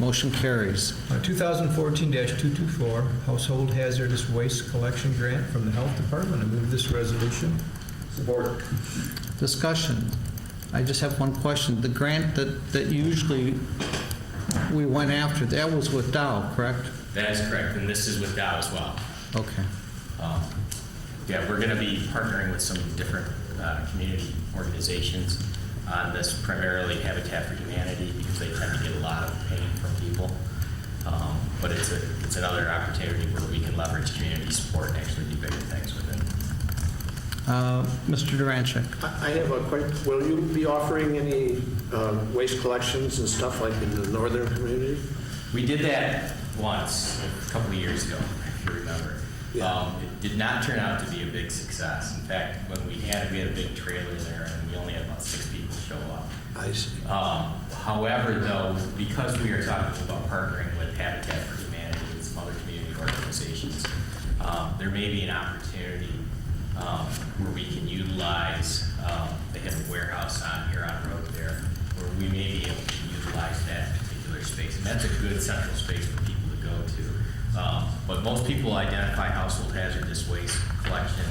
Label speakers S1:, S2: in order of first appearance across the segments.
S1: Motion carries.
S2: Uh, 2014-224, Household Hazardous Waste Collection Grant from the Health Department. I move this resolution. Support.
S1: Discussion. I just have one question. The grant that, that usually we went after, that was with Dow, correct?
S3: That is correct, and this is with Dow as well.
S1: Okay.
S3: Um, Yeah, we're going to be partnering with some different uh, community organizations on this, primarily Habitat for Humanity, because they tend to get a lot of pain from people. Um, But it's a, it's another opportunity where we can leverage community support and actually do bigger things with it.
S1: Uh, Mr. Durancheck.
S4: I I have a question. Will you be offering any um, waste collections and stuff like in the northern community?
S3: We did that once, a couple of years ago, if you remember.
S4: Yeah.
S3: Um, It did not turn out to be a big success. In fact, when we had, it, we had a big trailer there, and we only had about six people show up.
S4: I see.
S3: Um, However, though, because we are talking about partnering with Habitat for Humanity and some other community organizations, um, there may be an opportunity um, where we can utilize, um, they have a warehouse on here on Road there, where we may be able to utilize that particular space. And that's a good central space for people to go to. Um, But most people identify household hazardous waste collection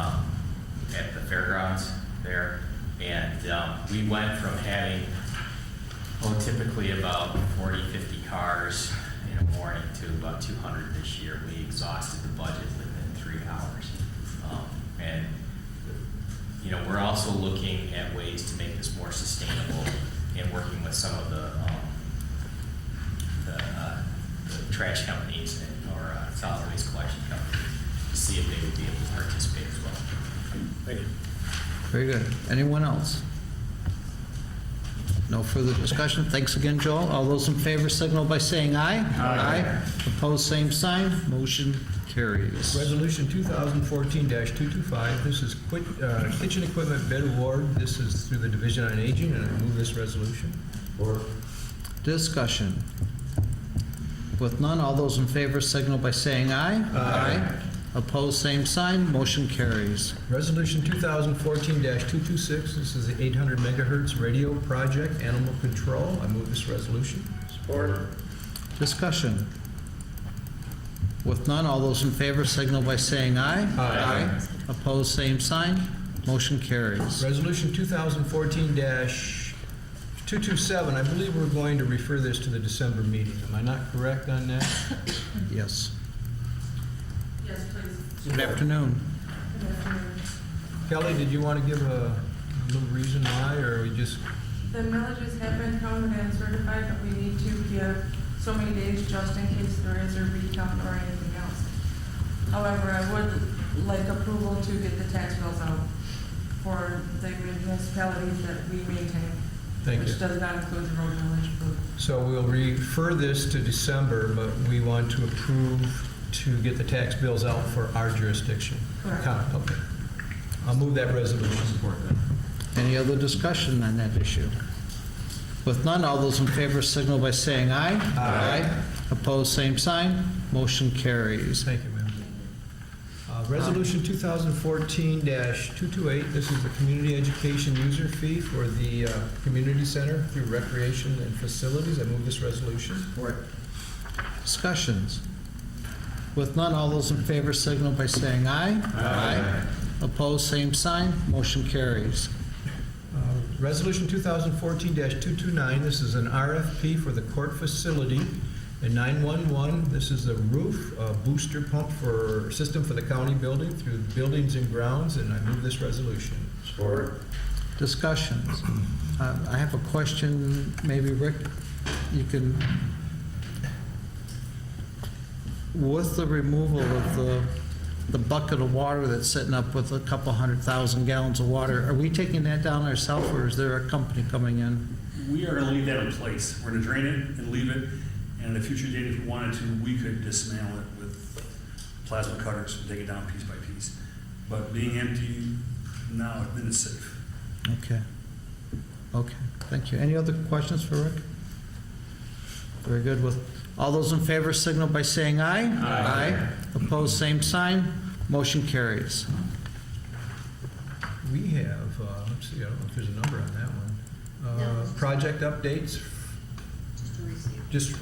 S3: um, at the fairgrounds there. And um, we went from having, oh, typically about 40, 50 cars in a morning to about 200 this year. We exhausted the budget within three hours. Um, And, you know, we're also looking at ways to make this more sustainable and working with some of the um, the, uh, the trash companies and, or uh, solid waste collection companies to see if they would be able to participate as well.
S1: Very good. Anyone else? No further discussion. Thanks again, Joel. All those in favor signal by saying aye. Aye. Opposed, same sign. Motion carries.
S2: Resolution 2014-225, this is quit- uh, kitchen equipment bid award. This is through the Division on Aging, and I move this resolution.
S1: Discussion. With none, all those in favor signal by saying aye. Aye. Opposed, same sign. Motion carries.
S2: Resolution 2014-226, this is the 800 megahertz radio project, animal control. I move this resolution.
S4: Support.
S1: Discussion. With none, all those in favor signal by saying aye.
S2: Aye.
S1: Opposed, same sign. Motion carries.
S2: Resolution 2014-227, I believe we're going to refer this to the December meeting. Am I not correct on that?
S1: Yes.
S5: Yes, please.
S1: Good afternoon.
S5: Good afternoon.
S2: Kelly, did you want to give a little reason why, or we just,
S5: The millages have been counted and certified, but we need to give so many days just in case there is a recount or anything else. However, I would like approval to get the tax bills out for the municipalities that we maintain.
S2: Thank you.
S5: Which does not include the road millage approved.
S2: so we'll refer this to December, but we want to approve to get the tax bills out for our jurisdiction?
S5: Correct.
S2: Con- Okay. I'll move that resolution. Support
S1: Any other discussion on that issue? With none, all those in favor signal by saying aye.
S2: Aye.
S1: Opposed, same sign. Motion carries.
S2: Thank you, ma'am. Uh, Resolution 2014-228, this is the community education user fee for the uh, community center through recreation and facilities. I move this resolution.
S1: Discussions. With none, all those in favor signal by saying aye. Aye. Opposed, same sign. Motion carries.
S2: Uh, Resolution 2014-229, this is an RFP for the court facility and 911. This is the roof uh, booster pump for, system for the county building through buildings and grounds, and I move this resolution.
S4: Support.
S1: Discussions. Uh, I have a question, maybe Rick, you can, with the removal of the, the bucket of water that's sitting up with a couple hundred thousand gallons of water, are we taking that down ourselves, or is there a company coming in?
S6: We are gonna leave that in place. We're gonna drain it and leave it, and at a future date, if we wanted to, we could dismantle it with plasma cutters and take it down piece by piece. But being empty now, then it's safe.
S1: Okay. Okay, thank you. Any other questions for Rick? Very good. With, all those in favor signal by saying aye. Aye. Opposed, same sign. Motion carries.
S2: We have, uh, let's see, I don't know if there's a number on that one. Uh, Project updates
S7: Just to receive.
S2: just